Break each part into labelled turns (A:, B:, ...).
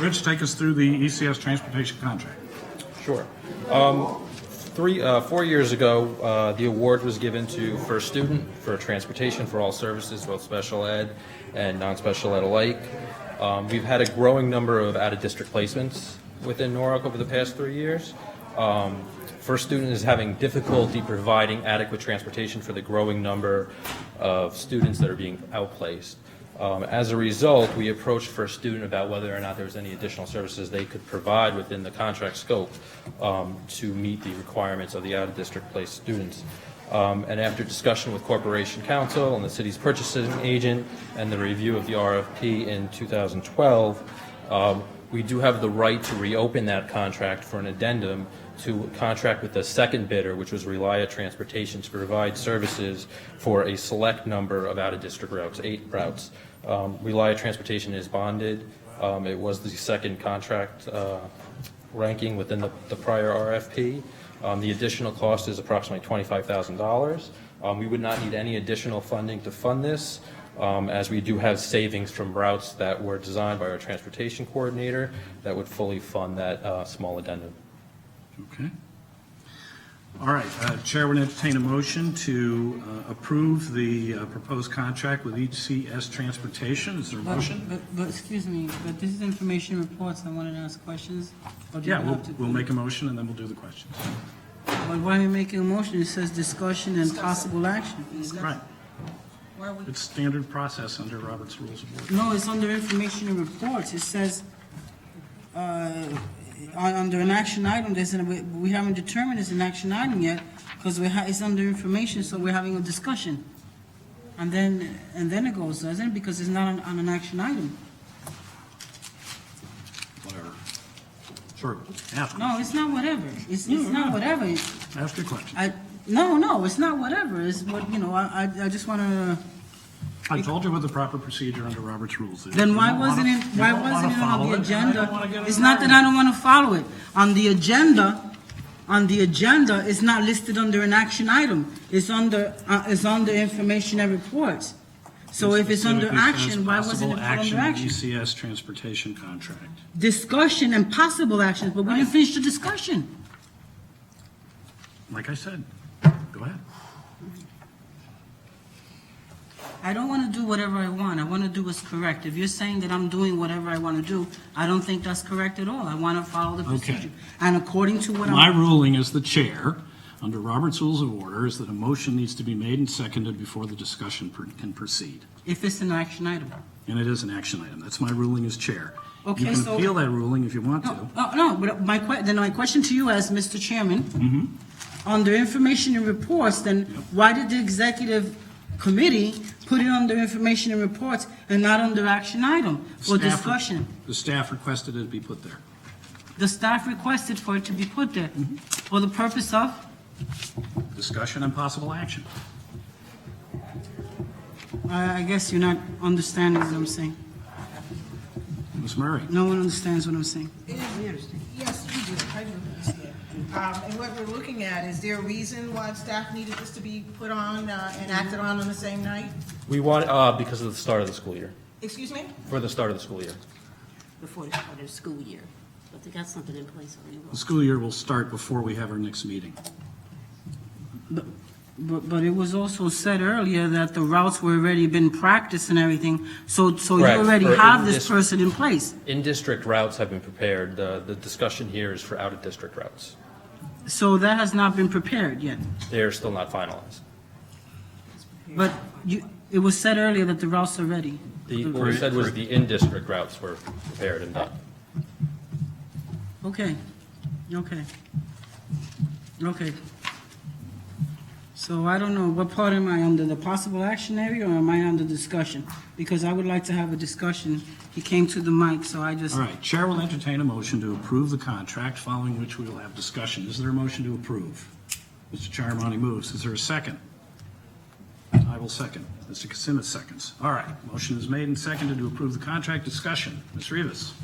A: Rich, take us through the ECS transportation contract.
B: Sure. Um, Three, uh, four years ago, uh, the award was given to First Student for transportation for all services, both special ed and non-special ed alike. Um, We've had a growing number of out-of-district placements within Norwalk over the past three years. Um, First Student is having difficulty providing adequate transportation for the growing number of students that are being outplaced. Um, As a result, we approached First Student about whether or not there was any additional services they could provide within the contract scope um, to meet the requirements of the out-of-district placed students. Um, And after discussion with Corporation Council and the city's purchasing agent and the review of the RFP in 2012, um, we do have the right to reopen that contract for an addendum to contract with the second bidder, which was Relia Transportation, to provide services for a select number of out-of-district routes, eight routes. Um, Relia Transportation is bonded. Um, It was the second contract uh, ranking within the the prior RFP. Um, The additional cost is approximately $25,000. Um, We would not need any additional funding to fund this, um, as we do have savings from routes that were designed by our transportation coordinator that would fully fund that uh, small addendum.
A: Okay. All right, uh, Chair would entertain a motion to uh, approve the uh, proposed contract with ECS Transportation. Is there a
C: But-
A: motion?
C: But, but, excuse me, but this is information reports, I wanted to ask questions. or do you
A: Yeah, we'll,
C: have to-
A: we'll make a motion and then well do the questions.
C: But why are you making a motion? It says discussion and possible action.
A: Right,
C: Why are we-
A: it's standard process under Robert's Rules of Order.
C: No, it's under information and reports, it says, uh, on, under an action item, there's, an- we, we haven't determined it's an action item yet, because we ha, it's under information, so we're having a discussion. And then, and then it goes, doesn't it? Because it's not on, on an action item.
A: Whatever. Sure, ask,
C: No, it's not whatever, it's, it's not whatever, It's-
A: ask your question.
C: I, no, no, it's not whatever, it's what, you know, I, I, I just wanna,
A: I told you what the proper procedure under Robert's Rules is.
C: then
A: You
C: why
A: don't wanna-
C: wasn't it,
A: you
C: why
A: don't wanna
C: wasn't it on
A: follow
C: the
A: it, and I don't wanna
C: agenda?
A: get
C: It's not that
A: involved.
C: I don't wanna follow it, on the agenda, on the agenda, it's not listed under an action item, it's under, uh, it's under information and reports. So if it's under
A: Specifically says
C: action, why wasn't it put under
A: Possible
C: action?
A: action, ECS Transportation Contract.
C: Discussion and possible actions, but we didn't finish the discussion.
A: Like I said, go ahead.
C: I don't want to do whatever I want. I want to do what's correct. If you're saying that I'm doing whatever I want to do, I don't think that's correct at all. I want to follow the
A: Okay.
C: procedure. And according to what
A: My
C: I'm,
A: ruling as the chair, under Robert's Rules of Order, is that a motion needs to be made and seconded before the discussion per- can proceed.
C: if it's an action item.
A: And it is an action item. That's my ruling as chair.
C: Okay,
A: You can
C: so-
A: appeal that ruling if you want to.
C: No, no, no, but my que, then my question to you as Mr. Chairman,
A: Mm-hmm.
C: under information and reports, then why did the executive committee put it under information and reports and not under action item or
A: Staff-
C: discussion?
A: The staff requested it be put there.
C: The staff requested for it to be put there
A: Mm-hmm.
C: for the purpose of,
A: Discussion and possible action.
C: I I guess you're not understanding what I'm saying.
A: Ms. Murray?
C: No one understands what I'm saying.
D: Yes, we do, I do understand. Um, And what we're looking at, is there a reason why staff needed this to be put on uh, and acted on on the same night?
B: We want, uh, because of the start of the school year,
D: Excuse me?
B: for the start of the school year.
E: before the start of the school year, but they got something in place already.
A: The school year will start before we have our next meeting.
C: But, but but it was also said earlier that the routes were already been practiced and everything, so, so you
B: Correct,
C: already
B: for
C: have
B: this-
C: this person in place.
B: In-district routes have been prepared. The the discussion here is for out-of-district routes.
C: So that has not been prepared yet.
B: They are still not finalized.
C: But you, it was said earlier that the routes are ready.
B: The, what we said was the in-district routes were prepared and done.
C: Okay, okay. Okay. So I don't know, what part am I under, the possible action area, or am I under discussion? Because I would like to have a discussion. He came to the mic, so I just.
A: All right, Chair will entertain a motion to approve the contract, following which we will have discussion. Is there a motion to approve? Mr. Charmani moves. Is there a second? I will second. Mr. Kasimis seconds. All right, motion is made and seconded to approve the contract. Discussion. Ms. Rivas?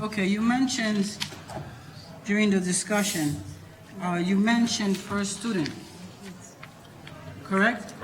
C: Okay, you mentioned during the discussion, uh, you mentioned first student, correct?